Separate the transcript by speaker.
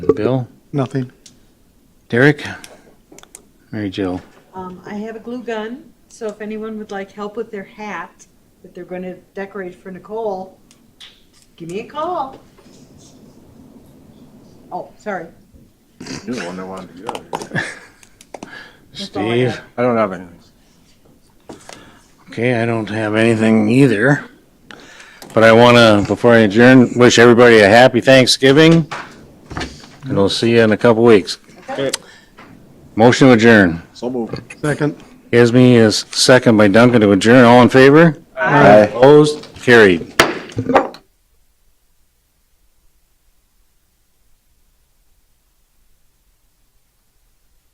Speaker 1: Bill,
Speaker 2: Nothing.
Speaker 1: Derek, Mary Jill.
Speaker 3: Um, I have a glue gun, so if anyone would like help with their hat that they're going to decorate for Nicole, give me a call. Oh, sorry.
Speaker 4: You're the one that wanted to go.
Speaker 3: That's all I
Speaker 1: Steve.
Speaker 3: have.
Speaker 4: I don't have anything.
Speaker 1: Okay, I don't have anything either. But I want to, before I adjourn, wish everybody a happy Thanksgiving. And we'll see you in a couple weeks.
Speaker 3: Okay.
Speaker 1: Motion to adjourn.
Speaker 4: So moved.
Speaker 2: Second.
Speaker 1: Esme is second by Duncan to adjourn. All in favor? Opposed? Carried.